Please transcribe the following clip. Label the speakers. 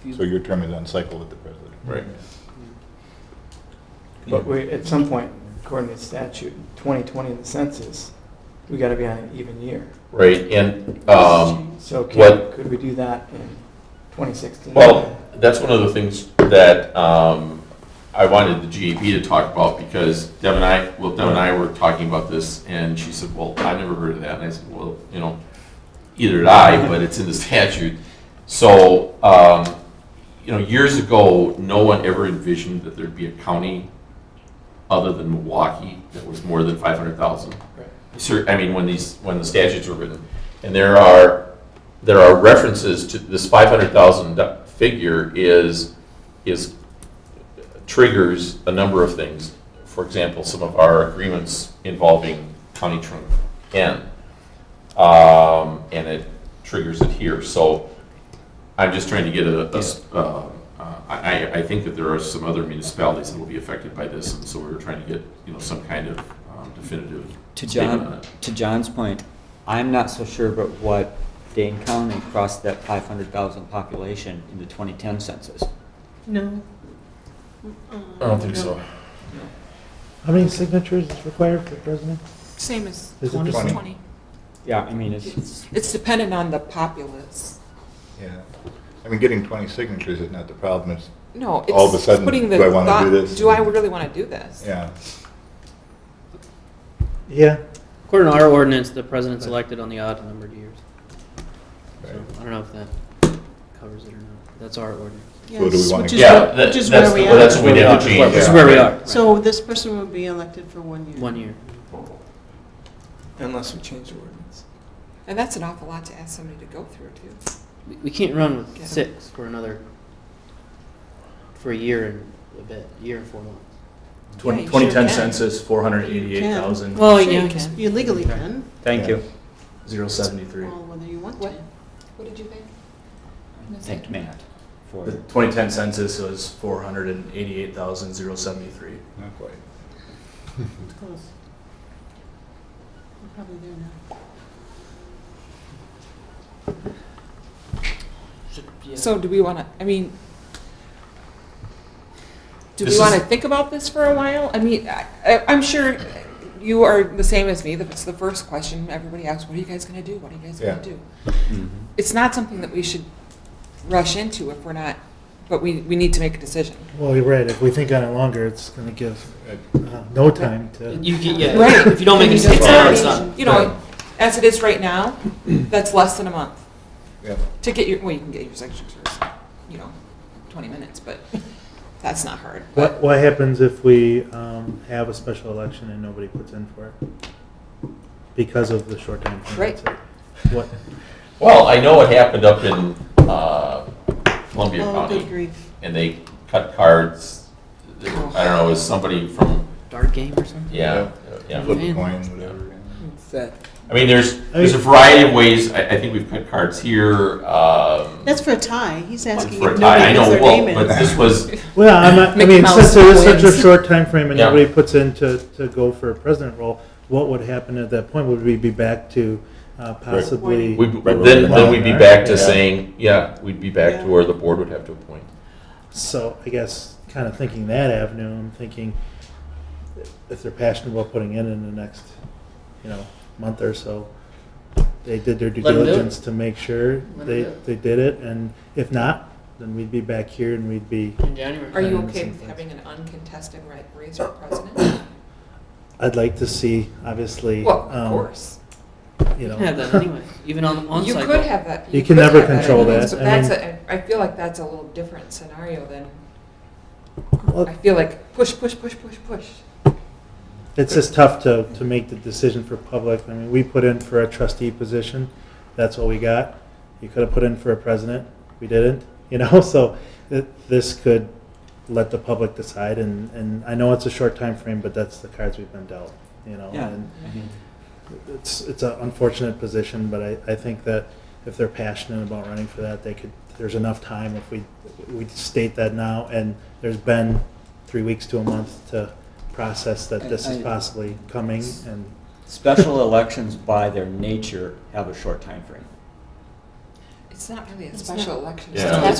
Speaker 1: if you-
Speaker 2: So your term is on cycle with the president.
Speaker 3: Right.
Speaker 4: But we, at some point, according to statute, 2020 in the census, we got to be on an even year.
Speaker 3: Right, and, um,
Speaker 4: So can,
Speaker 3: What-
Speaker 4: could we do that in 2016?
Speaker 3: well, that's one of the things that, um, I wanted the GAB to talk about, because Deb and I, well, Deb and I were talking about this, and she said, well, I never heard of that, and I said, well, you know, either did I, but it's in the statute. So, um, you know, years ago, no one ever envisioned that there'd be a county other than Milwaukee that was more than five hundred thousand.
Speaker 4: Right.
Speaker 3: Cer- I mean, when these, when the statutes were written. And there are, there are references to, this five hundred thousand figure is, is, triggers a number of things. For example, some of our agreements involving county trunk N. Um, and it triggers it here, so I'm just trying to get a, a s- uh, uh, I, I- I think that there are some other municipalities that will be affected by this, and so we were trying to get, you know, some kind of um, definitive
Speaker 5: To
Speaker 3: statement on
Speaker 5: John,
Speaker 3: it.
Speaker 5: to John's point, I'm not so sure about what Dane County crossed that five hundred thousand population in the twenty ten census.
Speaker 6: No.
Speaker 3: I don't think so.
Speaker 7: How many signatures is required for president?
Speaker 6: Same as
Speaker 7: Is it 20?
Speaker 6: 20.
Speaker 5: Yeah, I mean, it's,
Speaker 6: It's it's dependent on the populace.
Speaker 2: Yeah. I mean, getting 20 signatures is not the problem, it's,
Speaker 6: No,
Speaker 2: All of a
Speaker 6: it's
Speaker 2: sudden,
Speaker 6: putting the
Speaker 2: do I wanna do
Speaker 6: thought,
Speaker 2: this?
Speaker 6: do I really want to do this?
Speaker 2: yeah.
Speaker 7: Yeah,
Speaker 8: According to our ordinance, the president's elected on the odd numbered years. So
Speaker 2: right.
Speaker 8: I don't know if that covers it or not. That's our ordinance.
Speaker 2: So do we
Speaker 9: Yes,
Speaker 2: wanna
Speaker 9: which
Speaker 2: go-
Speaker 9: is
Speaker 3: Yeah,
Speaker 9: what,
Speaker 3: that-
Speaker 9: which
Speaker 3: that's,
Speaker 9: is where we
Speaker 3: the- that's
Speaker 9: are.
Speaker 3: what we did with
Speaker 2: where- this
Speaker 3: change.
Speaker 8: This is
Speaker 2: is Yeah.
Speaker 8: where we are.
Speaker 9: So this person would be elected for one year.
Speaker 8: One year.
Speaker 4: Unless we change the ordinance.
Speaker 6: And that's an awful lot to ask somebody to go through, too.
Speaker 8: We- We can't run with
Speaker 6: Yeah.
Speaker 8: six for another, for a year and a bit, year and four months.
Speaker 6: Yeah,
Speaker 9: Twenty-
Speaker 6: you
Speaker 9: twenty-
Speaker 10: Twenty ten
Speaker 6: sure can.
Speaker 10: census, four hundred eighty-eight thousand,
Speaker 8: Well,
Speaker 9: Sure,
Speaker 8: yeah,
Speaker 9: you
Speaker 8: you
Speaker 9: can.
Speaker 8: can.
Speaker 9: Oh, You legally can,
Speaker 2: Thank you.
Speaker 10: zero seventy-three.
Speaker 9: well, whether you want
Speaker 6: What?
Speaker 9: to.
Speaker 6: What did you think?
Speaker 5: thank Matt for.
Speaker 10: The twenty ten census was four hundred and eighty-eight thousand, zero seventy-three.
Speaker 2: Not quite.
Speaker 9: It's close. We're probably there now.
Speaker 6: So do we want to, I mean, do
Speaker 3: This
Speaker 6: we
Speaker 3: is-
Speaker 6: want to think about this for a while? I mean, I, I- I'm sure you are the same as me, that it's the first question everybody asks, what are you guys going to do? What are you guys going
Speaker 2: Yeah.
Speaker 6: to do?
Speaker 5: Mhm.
Speaker 6: It's not something that we should rush into if we're not, but we, we need to make a decision.
Speaker 7: well, you're right, if we think on it longer, it's gonna give
Speaker 2: Uh,
Speaker 7: uh, no time to,
Speaker 8: You can, yeah.
Speaker 6: Right.
Speaker 8: If you don't make a
Speaker 9: It's
Speaker 8: decision now, it's
Speaker 6: already-
Speaker 8: not.
Speaker 6: You know, as it is right now, that's less than a month
Speaker 2: Yeah.
Speaker 6: to get your, well, you can get your signatures, you know, 20 minutes, but that's not hard.
Speaker 7: what, what happens if we um, have a special election and nobody puts in for it? Because of the short time. frame, that's it. What,
Speaker 3: Well, I know what happened up in uh, Columbia
Speaker 9: Oh, good
Speaker 3: County,
Speaker 9: grief.
Speaker 3: and they cut cards. They were- I don't know, it was somebody from,
Speaker 8: Dart game or something?
Speaker 3: yeah, yeah.
Speaker 2: Flip a
Speaker 8: Man.
Speaker 2: coin, whatever.
Speaker 4: It's that
Speaker 3: I mean, there's, there's a variety of ways, I, I think we've cut cards here, um.
Speaker 9: That's for a tie, he's asking
Speaker 3: for a
Speaker 9: if
Speaker 3: tie. I
Speaker 9: nobody
Speaker 3: know,
Speaker 9: puts their
Speaker 3: well,
Speaker 9: name in.
Speaker 3: But this was,
Speaker 7: well, I'm not, I
Speaker 6: Mickey
Speaker 7: mean,
Speaker 6: Mouse
Speaker 7: since there is such a
Speaker 6: wins.
Speaker 7: short time frame and
Speaker 3: Yeah.
Speaker 7: nobody puts in to, to go for a president role, what would happen at that point? Would we be back to uh, possibly?
Speaker 3: we,
Speaker 2: Right, right,
Speaker 3: then, then
Speaker 2: right.
Speaker 3: we'd be back to
Speaker 2: Yeah.
Speaker 3: saying, yeah, we'd be back
Speaker 9: Yeah.
Speaker 3: to where the board would have to appoint.
Speaker 7: So I guess kind of thinking that avenue, I'm thinking if they're passionate about putting in in the next, you know, month or so, they did their due
Speaker 8: Let 'em do it.
Speaker 7: diligence to make sure
Speaker 8: Let 'em
Speaker 7: they,
Speaker 8: do it.
Speaker 7: they did it, and if not, then we'd be back here and we'd be,
Speaker 8: In January.
Speaker 6: Are you
Speaker 7: Mm,
Speaker 6: okay with
Speaker 7: sometimes.
Speaker 6: having an uncontested ra- race for president?
Speaker 7: I'd like to see, obviously,
Speaker 6: Well, of
Speaker 7: um,
Speaker 6: course.
Speaker 7: you
Speaker 8: You can
Speaker 7: know,
Speaker 8: have that anyway, even on one
Speaker 6: You
Speaker 8: cycle.
Speaker 6: could have that.
Speaker 7: You
Speaker 6: could
Speaker 7: can never
Speaker 6: have
Speaker 7: control
Speaker 6: anyways,
Speaker 7: that.
Speaker 6: But
Speaker 7: I
Speaker 6: that's, a- I I feel like that's a little different scenario than,
Speaker 7: well,
Speaker 6: I feel like push, push, push, push, push.
Speaker 7: it's just tough to, to make the decision for public. I mean, we put in for a trustee position, that's what we got. You could have put in for a president, we didn't, you know, so th- this could let the public decide, and, and I know it's a short time frame, but that's the cards we've been dealt, you know.
Speaker 5: Yeah,
Speaker 7: And
Speaker 5: I mean,
Speaker 7: it's, it's an unfortunate position, but I, I think that if they're passionate about running for that, they could, there's enough time if we, we state that now, and there's been three weeks to a month to process that this is
Speaker 5: I- I-
Speaker 7: possibly coming, and
Speaker 5: Special elections by their nature have a short time frame.
Speaker 6: It's not really a
Speaker 9: It's
Speaker 6: special
Speaker 9: not.
Speaker 6: election.
Speaker 3: Yeah.